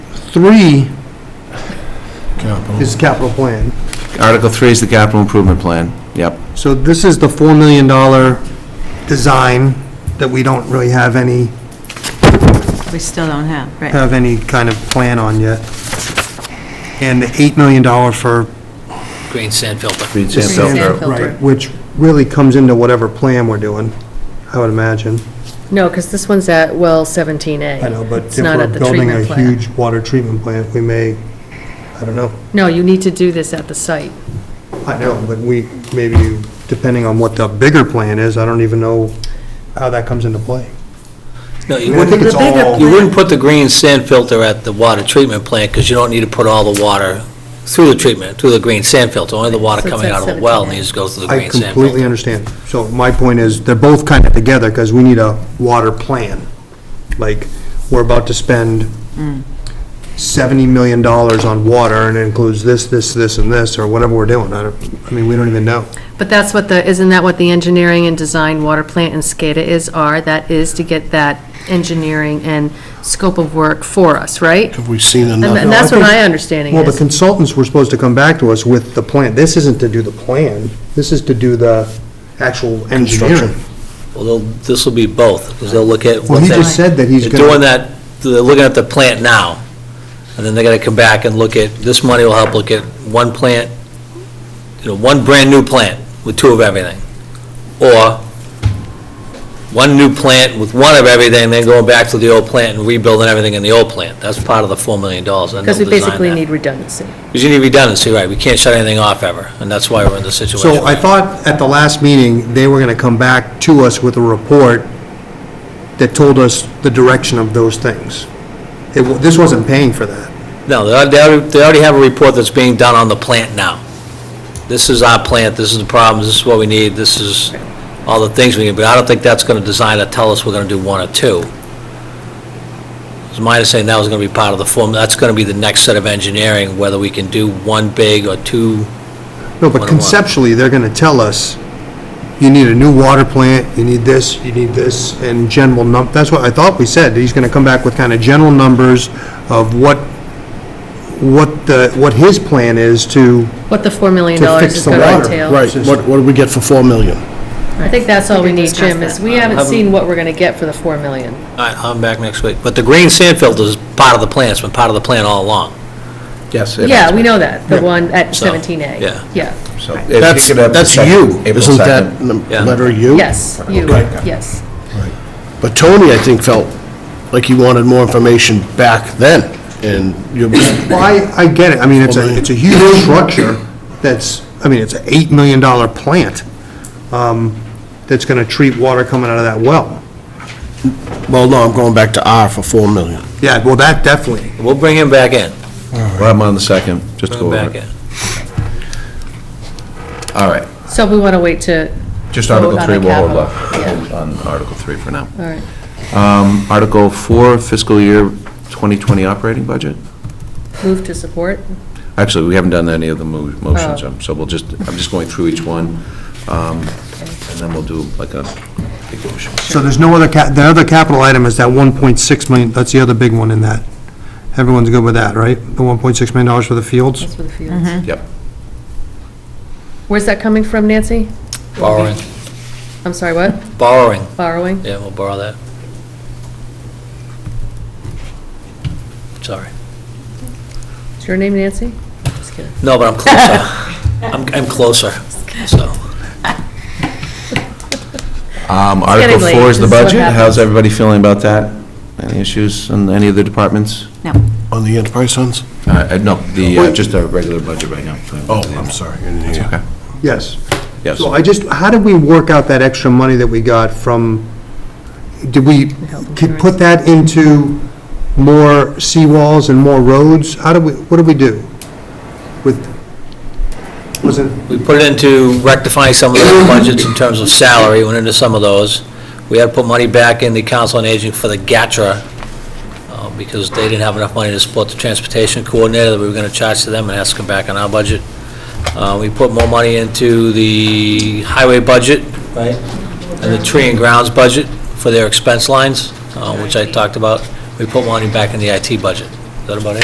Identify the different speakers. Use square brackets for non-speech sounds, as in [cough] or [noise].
Speaker 1: three
Speaker 2: Capital.
Speaker 1: is capital plan.
Speaker 3: Article 3 is the capital improvement plan, yep.
Speaker 1: So this is the $4 million design that we don't really have any,
Speaker 4: We still don't have, right?
Speaker 1: have any kind of plan on yet. And the $8 million for
Speaker 5: green sand filter.
Speaker 3: Green
Speaker 1: the
Speaker 3: sand
Speaker 4: sand
Speaker 3: filter.
Speaker 4: filter.
Speaker 1: Right, which really comes into whatever plan we're doing, I would imagine.
Speaker 6: No, because this one's at well 17A.
Speaker 1: I know, but
Speaker 6: It's
Speaker 1: if
Speaker 6: not
Speaker 1: we're
Speaker 6: at the
Speaker 1: building a
Speaker 6: treatment plant.
Speaker 1: huge water treatment plant, we may, I don't know.
Speaker 6: No, you need to do this at the site.
Speaker 1: I know, but we, maybe, depending on what the bigger plan is, I don't even know how that comes into play.
Speaker 5: No, you
Speaker 1: I think
Speaker 5: wouldn't,
Speaker 1: it's all,
Speaker 5: you wouldn't put the green sand filter at the water treatment plant, because you don't need to put all the water through the treatment, through the green sand filter, only the water
Speaker 6: So it's
Speaker 5: coming
Speaker 6: at
Speaker 5: out of the
Speaker 6: 17A.
Speaker 5: well needs to go through the
Speaker 1: I
Speaker 5: green sand
Speaker 1: completely
Speaker 5: filter.
Speaker 1: understand. So my point is, they're both kind of together, because we need a water plan. Like, we're about to spend $70 million on water, and it includes this, this, this, and this, or whatever we're doing. I don't, I mean, we don't even know.
Speaker 6: But that's what the, isn't that what the engineering and design water plant and SCADA is, are? That is to get that engineering and scope of work for us, right?
Speaker 2: Have we seen
Speaker 6: And
Speaker 2: enough?
Speaker 6: and that's
Speaker 1: No, I
Speaker 6: what
Speaker 1: think-
Speaker 6: my understanding
Speaker 1: Well, the
Speaker 6: is.
Speaker 1: consultants were supposed to come back to us with the plan. This isn't to do the plan, this is to do the actual engineering.
Speaker 5: Well, they'll- this will be both, because they'll look at.
Speaker 1: Well,
Speaker 5: what
Speaker 1: he
Speaker 5: they-
Speaker 1: just said that he's
Speaker 5: They're doing
Speaker 1: gonna,
Speaker 5: that, they're looking at the plant now, and then they're gonna come back and look at, this money will help look at one plant, you know, one brand-new plant with two of everything, or one new plant with one of everything, then going back to the old plant and rebuilding everything in the old plant. That's part of the $4 million, and they'll
Speaker 6: Because we
Speaker 5: design
Speaker 6: basically
Speaker 5: that.
Speaker 6: need redundancy.
Speaker 5: Because you need redundancy, right, we can't shut anything off ever, and that's why we're in this situation.
Speaker 1: so I thought at the last meeting, they were gonna come back to us with a report that told us the direction of those things. It, wa- this wasn't paying for that.
Speaker 5: No, they already- they already have a report that's being done on the plant now. This is our plant, this is the problems, this is what we need, this is all the things we need, but I don't think that's going to design to tell us we're going to do one or two. It's my understanding that was going to be part of the form, that's going to be the next set of engineering, whether we can do one big or two.
Speaker 1: No,
Speaker 5: What
Speaker 1: but
Speaker 5: it was.
Speaker 1: conceptually, they're gonna tell us, you need a new water plant, you need this, you need this, and general num, that's what I thought we said. He's gonna come back with kind of general numbers of what, what the, what his plan is to
Speaker 6: What the $4 million
Speaker 1: To fix
Speaker 6: is
Speaker 1: the
Speaker 6: going
Speaker 1: water,
Speaker 6: to entail.
Speaker 2: Right, what, what do we get for 4 million?
Speaker 6: I think that's all we need,
Speaker 4: discuss
Speaker 6: Jim, is
Speaker 4: that.
Speaker 6: we haven't seen what we're going to get for the $4 million.
Speaker 5: All right, I'm back next week, but the green sand filter is part of the plan, it's been part of the plan all along.
Speaker 3: Yes.
Speaker 6: Yeah, we know that, the one at
Speaker 5: So,
Speaker 6: 17A.
Speaker 5: yeah.
Speaker 6: Yeah,
Speaker 2: That's, that's you, isn't that num-
Speaker 5: Yeah.
Speaker 2: letter you?
Speaker 6: yes, you,
Speaker 2: Okay.
Speaker 6: yes.
Speaker 2: But Tony, I think, felt like he wanted more information back then, and [coughs] you,
Speaker 1: Well, I, I get it, I mean, it's a, it's a huge structure that's, I mean, it's an eight million dollar plant, um, that's gonna treat water coming out of that well.
Speaker 2: well, no, I'm going back to R for 4 million.
Speaker 1: Yeah, well, that definitely,
Speaker 5: We'll bring him back in,
Speaker 3: Well, I'm on the second, just to go
Speaker 5: bring him back
Speaker 3: over it.
Speaker 5: in.
Speaker 3: All right,
Speaker 6: So we want to wait to,
Speaker 3: just Article
Speaker 6: Vote on
Speaker 3: 3,
Speaker 6: the
Speaker 3: we'll hold
Speaker 6: capital,
Speaker 3: off
Speaker 6: yeah.
Speaker 3: Hold on Article 3 for now.
Speaker 6: all right.
Speaker 3: Article 4, fiscal year 2020 operating budget?
Speaker 6: Move to support?
Speaker 3: Actually, we haven't done any of the mo- motions,
Speaker 6: Oh.
Speaker 3: um, so we'll just, I'm just going through each one, um, and then we'll do like a big motion.
Speaker 1: so there's no other cap, the other capital item is that one point six million, that's the other big one in that. Everyone's good with that, right? The one point six million dollars for the fields?
Speaker 6: That's for the fields.
Speaker 3: Yep.
Speaker 6: Where's that coming from, Nancy?
Speaker 5: Borrowing,
Speaker 6: I'm sorry, what?
Speaker 5: borrowing,
Speaker 6: Borrowing?
Speaker 5: yeah, we'll borrow that. Sorry.
Speaker 6: Is your name Nancy? Just kidding.
Speaker 5: No, but I'm closer. I'm, I'm closer, so.
Speaker 3: Um,
Speaker 6: getting
Speaker 3: Article
Speaker 6: late.
Speaker 3: 4 is the
Speaker 6: This is what
Speaker 3: budget. How's
Speaker 6: happens.
Speaker 3: everybody feeling about that? Any issues in any of the departments?
Speaker 4: No.
Speaker 2: On the enterprise funds?
Speaker 3: Uh, uh, no, the, uh, just our regular budget right now.
Speaker 2: Oh, I'm sorry, I didn't hear you.
Speaker 3: Okay,
Speaker 1: Yes.
Speaker 3: yes.
Speaker 1: So I just, how did we work out that extra money that we got from, did we
Speaker 6: Health
Speaker 1: could put that into more seawalls and more roads? How do we, what do we do with, was it,
Speaker 5: We put it into rectifying some of the budgets in terms of salary, went into some of those. We had to put money back in the council on aging for the GATRA, uh, because they didn't have enough money to support the transportation coordinator that we were gonna charge to them and ask them back on our budget. Uh, we put more money into the highway budget. Right. And the tree and grounds budget for their expense lines, uh, which I talked about. We put money back in the IT budget. Is that about it?